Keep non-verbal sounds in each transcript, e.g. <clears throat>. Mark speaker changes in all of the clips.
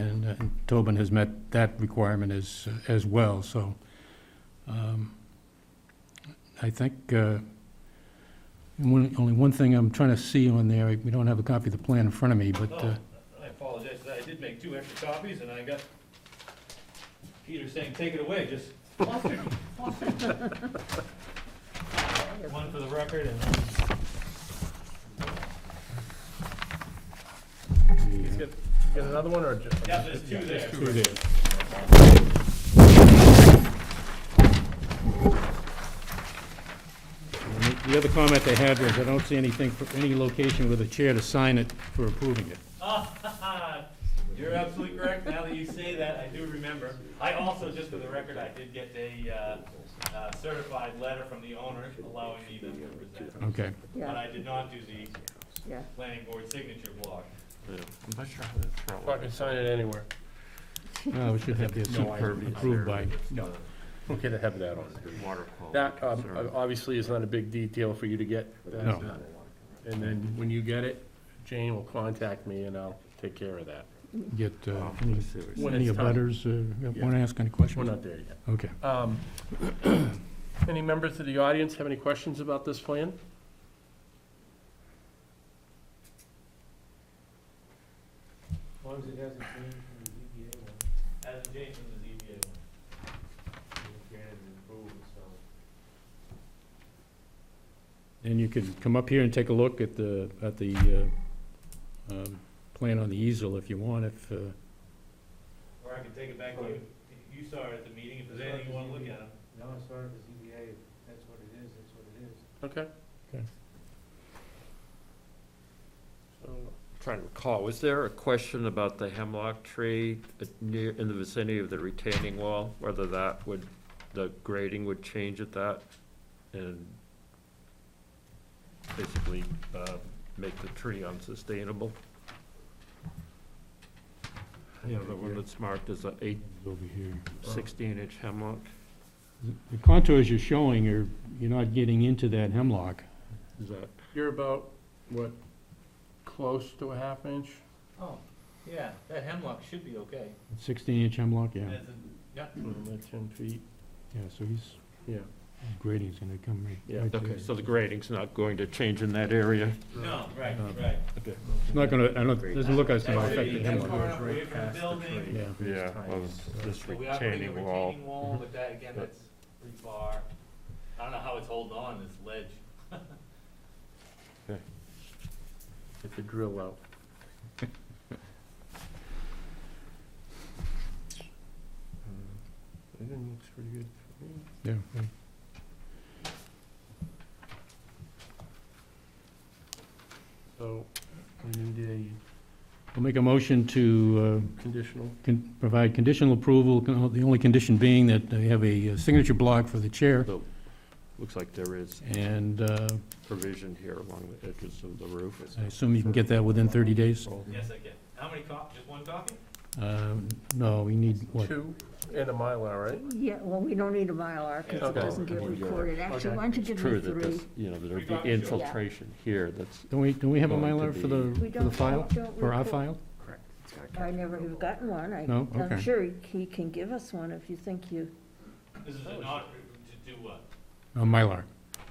Speaker 1: and Tobin has met that requirement as, as well, so. um, I think, uh, one- only one thing I'm trying to see on there, we don't have a copy of the plan in front of me, but, uh,
Speaker 2: No, Oh, I apologize, I did make two extra copies, and I got Peter saying, take it away, just flustered, flustered. One for the record and
Speaker 3: Let's Get get another one or just?
Speaker 2: Yeah, there's two there.
Speaker 1: through there. And the- The other comment they had was, I don't see anything for any location with a chair to sign it for approving it.
Speaker 2: <laughs> You're absolutely correct. Now that you say that, I do remember. I also, just for the record, I did get a uh, uh, certified letter from the owner allowing me to present.
Speaker 1: Okay.
Speaker 2: But
Speaker 4: Yeah,
Speaker 2: I did not do the
Speaker 4: yeah.
Speaker 2: planning board signature block.
Speaker 5: I'm not sure how to throw
Speaker 3: I can sign it anywhere.
Speaker 1: No, we should have the
Speaker 3: No, I-
Speaker 1: approved by.
Speaker 3: No. Okay, to have that on there.
Speaker 5: water quality.
Speaker 3: That, um,
Speaker 5: concern.
Speaker 3: obviously is not a big detail for you to get. that.
Speaker 1: No.
Speaker 3: And then when you get it, Jane will contact me and I'll take care of that.
Speaker 1: Get uh,
Speaker 5: Oh,
Speaker 1: any-
Speaker 5: I see what you're
Speaker 3: When
Speaker 1: any
Speaker 3: it's time.
Speaker 1: butters, want to ask any
Speaker 3: We're
Speaker 1: questions?
Speaker 3: not there yet.
Speaker 1: Okay.
Speaker 3: Um, <clears throat> Any members of the audience have any questions about this plan?
Speaker 2: As long as it hasn't changed from the ZBA one. Hasn't changed from the ZBA one.
Speaker 1: And you can come up here and take a look at the, at the uh, um, plan on the easel if you want, if, uh,
Speaker 2: Or I can take it back to you. You saw it at the meeting. If there's anything you want to look at.
Speaker 6: No, it's sort of the ZBA, If that's what it is, that's what it is.
Speaker 3: Okay.
Speaker 5: So, I'm Trying to recall, was there a question about the hemlock tree at- near, in the vicinity of the retaining wall? Whether that would, the grading would change at that
Speaker 3: uh,
Speaker 5: and basically, uh, make the tree unsustainable? You know, the one that's marked as a eight,
Speaker 1: over here.
Speaker 5: sixteen inch hemlock?
Speaker 1: The contours you're showing are, you're not getting into that hemlock.
Speaker 5: Is that,
Speaker 3: You're about, what, close to a half inch?
Speaker 2: Oh, yeah, that hemlock should be okay.
Speaker 1: Sixteen-inch hemlock, yeah.
Speaker 2: As in- Yeah.
Speaker 3: Mm, like Ten feet,
Speaker 1: Yeah, so he's,
Speaker 3: yeah.
Speaker 1: grading's gonna come right.
Speaker 3: Yeah,
Speaker 1: right
Speaker 5: okay,
Speaker 1: there.
Speaker 5: so the grading's not going to change in that area?
Speaker 2: No, right, right.
Speaker 5: Okay.
Speaker 1: It's not gonna, I don't, doesn't look like it's gonna
Speaker 2: That should
Speaker 1: affect
Speaker 2: be-
Speaker 1: the
Speaker 2: that's far
Speaker 1: hemlock.
Speaker 2: enough away from the building.
Speaker 1: Yeah.
Speaker 5: Yeah, well, this
Speaker 2: So we are putting a
Speaker 5: retaining wall. Mm-hmm.
Speaker 2: retaining wall, but that, again, that's pretty far. I don't know how it's holding on, this ledge.
Speaker 3: Get the drill out. Everything looks pretty good.
Speaker 1: Yeah. yeah.
Speaker 3: So, we need
Speaker 1: I'll make a motion to, uh,
Speaker 3: a conditional.
Speaker 1: can provide conditional approval, con- the only condition being that they have a uh, signature block for the chair,
Speaker 5: Looks like there is
Speaker 1: and uh,
Speaker 5: provision here along the edges of the roof.
Speaker 1: I assume you can get that within 30 days?
Speaker 5: Mm-hmm.
Speaker 2: Yes, I can. How many cop, just one copy?
Speaker 1: Uh, No, we need, what,
Speaker 3: Two and a Mylar, right?
Speaker 4: Yeah, well, we don't need a Mylar because it
Speaker 3: Okay.
Speaker 4: doesn't get recorded. Actually, why don't you give me
Speaker 5: True that
Speaker 4: three?
Speaker 5: this, you know,
Speaker 2: Three
Speaker 5: there'd
Speaker 2: copies,
Speaker 5: be
Speaker 2: yeah.
Speaker 5: infiltration here that's,
Speaker 1: don't we, don't we have a
Speaker 5: Going to
Speaker 1: Mylar for the,
Speaker 4: We
Speaker 1: for the
Speaker 4: don't,
Speaker 1: file?
Speaker 4: don't
Speaker 1: For our
Speaker 4: record-
Speaker 1: file?
Speaker 4: I never have gotten one. I,
Speaker 1: No?
Speaker 4: I'm
Speaker 1: Okay.
Speaker 4: sure he- he can give us one if you think you,
Speaker 2: This is a not, to do what?
Speaker 1: A Mylar.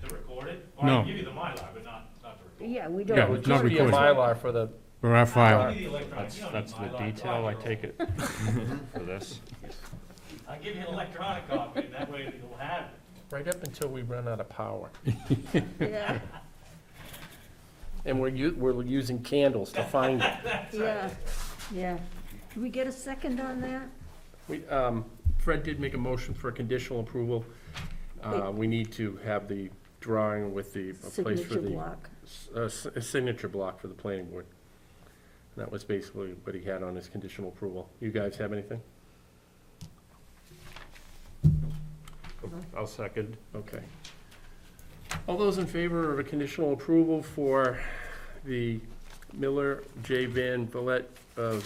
Speaker 2: To record it? Or I
Speaker 1: No.
Speaker 2: can give you the Mylar, but not, not to record.
Speaker 4: yeah, we
Speaker 1: Yeah,
Speaker 3: It
Speaker 4: don't.
Speaker 3: would
Speaker 1: it's not
Speaker 3: just be a
Speaker 1: recorded.
Speaker 3: Mylar for the,
Speaker 1: For our
Speaker 2: I'll
Speaker 1: file.
Speaker 2: give you the electronic.
Speaker 5: that's,
Speaker 2: You don't
Speaker 5: that's the
Speaker 2: need Mylar. It's
Speaker 5: detail I
Speaker 2: five-year-old. <laughs>
Speaker 5: take it for this.
Speaker 2: I'll give you an electronic copy, and that way you'll have it.
Speaker 3: right up until we run out of power.
Speaker 4: <laughs> Yeah,
Speaker 3: And we're u, we're using candles to find it.
Speaker 4: yeah, yeah. Do we get a second on that?
Speaker 3: We, um, Fred did make a motion for conditional approval. Uh, we need to have the drawing with the, a place for
Speaker 4: Signature
Speaker 3: the,
Speaker 4: block.
Speaker 3: s- a s- a signature block for the planning board. And That was basically what he had on his conditional approval. You guys have anything?
Speaker 5: I'll second.
Speaker 3: Okay. All those in favor of a conditional approval for the Miller J. Van Vliet uh,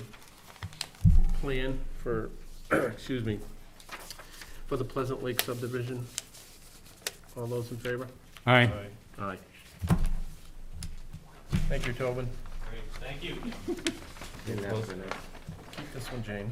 Speaker 3: plan for, <clears throat> excuse me, for the Pleasant Lake subdivision? All those in favor?
Speaker 1: Aye.
Speaker 3: Aye. Thank you, Tobin.
Speaker 2: Great, thank you.
Speaker 3: Keep this one, Jane.